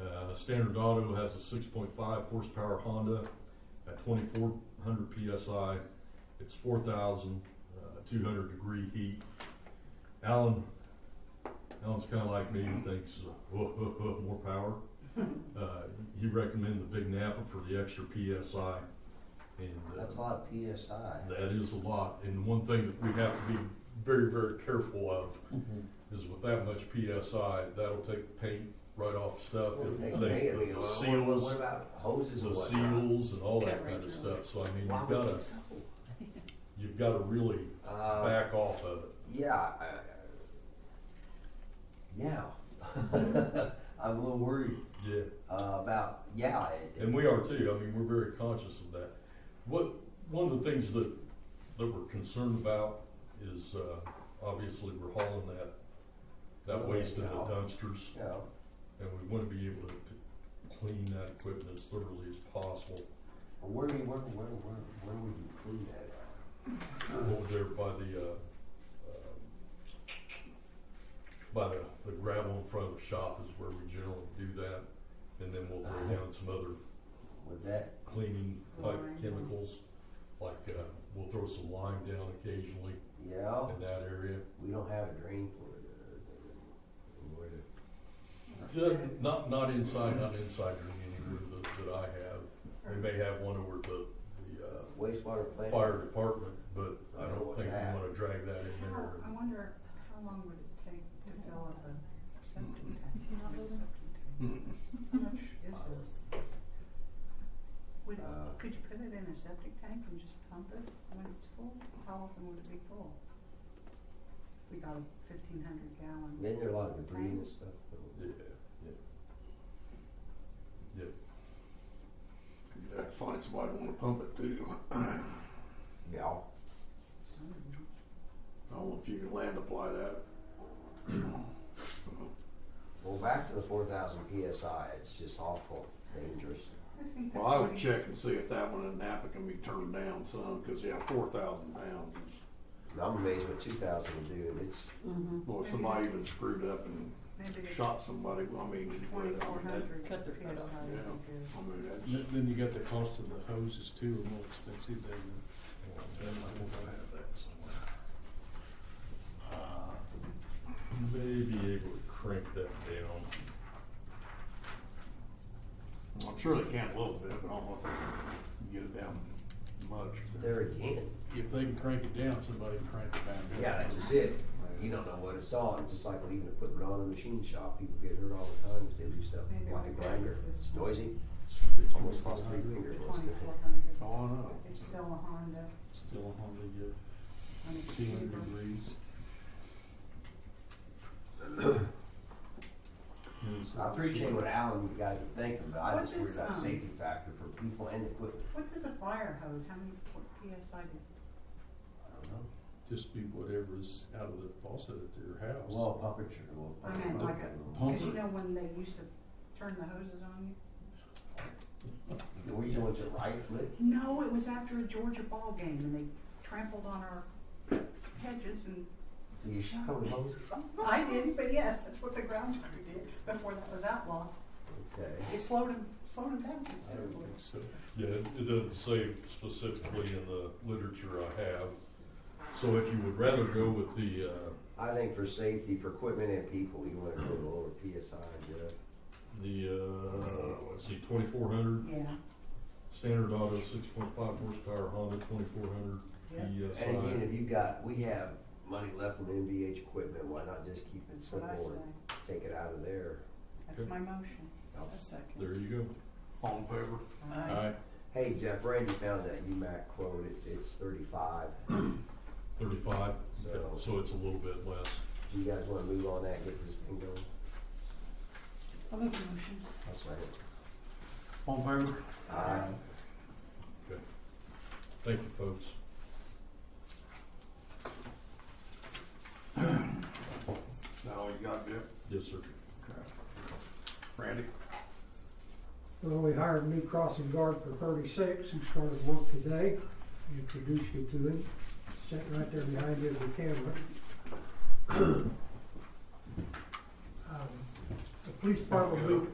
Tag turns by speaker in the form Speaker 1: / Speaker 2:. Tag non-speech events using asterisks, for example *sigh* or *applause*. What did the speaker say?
Speaker 1: Uh, Standard Auto has a six point five horsepower Honda at twenty-four hundred PSI. It's four thousand, uh, two hundred degree heat. Alan, Alan's kinda like me, and thinks, uh, more
Speaker 2: *laughs*
Speaker 1: power. Uh, he recommended the Big Napa for the extra PSI. And, uh,
Speaker 2: That's a lot of PSI.
Speaker 1: that is a lot, and one thing that we have to be very, very careful of is with that much PSI, that'll take the paint right off stuff.
Speaker 2: Well, they-
Speaker 1: It'll
Speaker 2: they-
Speaker 1: take
Speaker 2: they-
Speaker 1: the
Speaker 2: What what
Speaker 1: seals,
Speaker 2: about hoses
Speaker 1: the
Speaker 2: and whatnot?
Speaker 1: seals and all that
Speaker 3: Cut
Speaker 1: kind
Speaker 3: right
Speaker 1: of
Speaker 3: through.
Speaker 1: stuff, so I mean,
Speaker 2: uh, Why
Speaker 1: you've
Speaker 2: would
Speaker 1: gotta,
Speaker 2: they-
Speaker 1: you've gotta really
Speaker 2: Uh,
Speaker 1: back off of it.
Speaker 2: yeah, I, I- yeah. *laughs* I'm a little worried
Speaker 1: Yeah,
Speaker 2: uh, about, yeah. it- it-
Speaker 1: and we are too, I mean, we're very conscious of that. What, one of the things that, that we're concerned about is, uh, obviously, we're hauling that,
Speaker 2: Oh,
Speaker 1: that waste in the
Speaker 2: Out.
Speaker 1: dumpsters.
Speaker 2: You know,
Speaker 1: And we want to be able to, to clean that equipment as thoroughly as possible
Speaker 2: where, do you- where, where, where, where would you clean that at?
Speaker 1: over there by the, uh, uh, by the, the gravel in front of the shop is where we generally do that. And then we'll throw down some other
Speaker 2: Would that,
Speaker 1: cleaning type
Speaker 3: Lime.
Speaker 1: chemicals, like, uh, we'll throw some lime down occasionally
Speaker 2: yeah,
Speaker 1: in that area.
Speaker 2: we don't have a drain for it. uh, where to-
Speaker 1: To- Not, not inside, not inside during any room that, that I have. We may have one over at the, the, uh,
Speaker 2: Wastewater plant.
Speaker 1: fire department, but I don't think we
Speaker 2: Yeah.
Speaker 1: wanna drag that in
Speaker 3: How,
Speaker 1: there.
Speaker 3: I wonder how long would it take to fill up a septic tank? How much is it? Would,
Speaker 2: Uh,
Speaker 3: could you put it in a septic tank and just pump it when it's full? How often would it be full? We got a fifteen hundred gallon.
Speaker 2: Isn't there a lot of debris and stuff?
Speaker 1: Yeah, yeah. Yeah,
Speaker 4: You'd have to find somebody to want to pump it too.
Speaker 2: Yeah.
Speaker 4: I don't know if you can land apply that.
Speaker 2: Well, back to the four thousand PSI, it's just awful, dangerous.
Speaker 4: Well, I would check and see if that one in Napa can be turned down some, because yeah, four thousand pounds. is-
Speaker 2: And I'm amazed what two thousand will do, and it's,
Speaker 4: Well, if somebody even screwed up and
Speaker 3: Maybe it's
Speaker 4: shot somebody, well, I mean, I mean,
Speaker 3: twenty-four
Speaker 4: that,
Speaker 3: hundred.
Speaker 5: Cut their foot off.
Speaker 4: yeah, I mean, that's,
Speaker 6: Then then you got the cost of the hoses too, are more expensive than
Speaker 1: I have that somewhere. Uh, May be able to crank that down.
Speaker 4: I'm sure they can a little bit, but I don't know if they can get it down much.
Speaker 2: there again,
Speaker 6: if they can crank it down, somebody can crank it back up.
Speaker 2: yeah, that's just it. You don't know what it's on, it's just like leaving equipment on in a machine shop, people get hurt all the time because they leave stuff like a grinder, it's noisy. Almost lost three fingers.
Speaker 3: Twenty-four hundred.
Speaker 4: Oh, I know.
Speaker 3: It's still a Honda
Speaker 6: Still a Honda, yeah,
Speaker 3: on a
Speaker 6: two hundred
Speaker 3: cheaper.
Speaker 6: degrees. Yeah, so-
Speaker 2: I appreciate what Alan, you guys are thinking, but I just
Speaker 3: What
Speaker 2: worry
Speaker 3: is,
Speaker 2: about
Speaker 3: um,
Speaker 2: safety factor for people and equipment,
Speaker 3: What does a fire hose, how many what PSI did
Speaker 2: I don't know.
Speaker 6: Just be whatever's out of the faucet at their house.
Speaker 2: Well, puppetry, well.
Speaker 3: I mean,
Speaker 2: pump it.
Speaker 3: like
Speaker 6: Pump
Speaker 3: Because you
Speaker 6: it.
Speaker 3: know when they used to turn the hoses on you?
Speaker 2: Were you doing it right, Slick?
Speaker 3: No, it was after a Georgia ball game and they trampled on our hedges and,
Speaker 2: So you shot them with hoses?
Speaker 3: I didn't, but yes, that's what the ground crew did before that was outlawed.
Speaker 2: Okay.
Speaker 3: It slowed them, slowed them down
Speaker 2: I don't
Speaker 3: considerably.
Speaker 2: think
Speaker 6: So,
Speaker 1: Yeah, it it doesn't say specifically in the literature I have. So if you would rather go with the, uh,
Speaker 2: I think for safety, for equipment and people, you wanna go to lower PSI, Jeff.
Speaker 1: the, uh, let's see, twenty-four hundred,
Speaker 3: Yeah,
Speaker 1: standard auto, six point five horsepower Honda, twenty-four hundred E
Speaker 3: yeah,
Speaker 1: PSI.
Speaker 2: And again, if you got, we have money left in NVH equipment, why not just keep it
Speaker 3: that's what I
Speaker 2: simple
Speaker 3: say.
Speaker 2: and take it out of there?
Speaker 3: That's my motion.
Speaker 5: A second.
Speaker 1: There you go.
Speaker 4: All in favor?
Speaker 5: Aye.
Speaker 6: I,
Speaker 2: Hey, Jeff, Randy found that UMAC quote, it, it's thirty-five,
Speaker 1: Thirty-five,
Speaker 2: So-
Speaker 1: so it's a little bit less.
Speaker 2: do you guys wanna move on that, and get this thing going?
Speaker 5: I'll make a motion.
Speaker 2: I'll say it.
Speaker 4: All in favor?
Speaker 2: Aye.
Speaker 1: Thank you, folks.
Speaker 4: Is that all you got, Jeff?
Speaker 1: Yes, sir.
Speaker 4: Okay. Randy?
Speaker 7: Well, we hired a new crossing guard for thirty-six who started work today. Introduced you to him, sitting right there behind you with the camera. *clears throat* Um, The police department moved,